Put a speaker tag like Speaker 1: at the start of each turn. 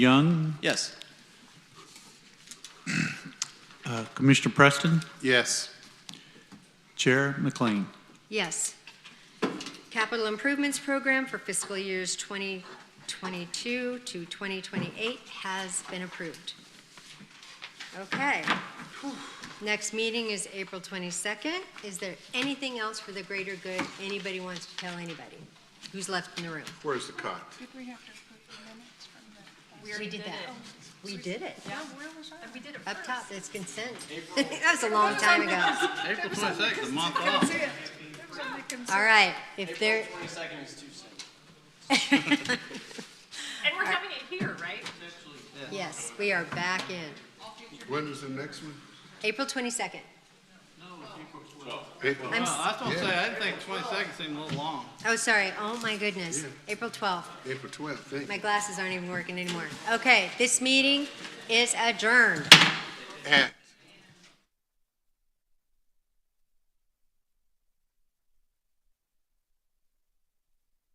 Speaker 1: Young,
Speaker 2: Yes.
Speaker 1: uh, Commissioner Preston,
Speaker 3: Yes.
Speaker 1: Chair McLean.
Speaker 4: Yes. Capital Improvements Program for fiscal years 2022 to 2028 has been approved. Okay. Next meeting is April 22nd. Is there anything else for the greater good anybody wants to tell anybody? Who's left in the room?
Speaker 3: Where's the cut?
Speaker 5: Did we have to approve the minutes from the?
Speaker 4: We did that. We did it.
Speaker 5: Yeah, where was I? We did it
Speaker 4: Up top, it's consent. That was a long time ago.
Speaker 2: April twenty-sixth, the month off.
Speaker 4: All right, if there,
Speaker 2: Twenty-second is Tuesday.
Speaker 6: And we're having it here, right?
Speaker 4: yes, we are back in.
Speaker 3: When is the next one?
Speaker 4: April 22nd.
Speaker 3: April.
Speaker 4: I'm
Speaker 2: Well, that's what I'm
Speaker 3: Yeah.
Speaker 2: saying, I didn't think twenty-second seemed a little long.
Speaker 4: Oh, sorry. Oh, my goodness.
Speaker 3: Yeah.
Speaker 4: April 12th.
Speaker 3: April twelfth,
Speaker 4: My glasses aren't even working anymore. Okay, this meeting is adjourned.
Speaker 3: At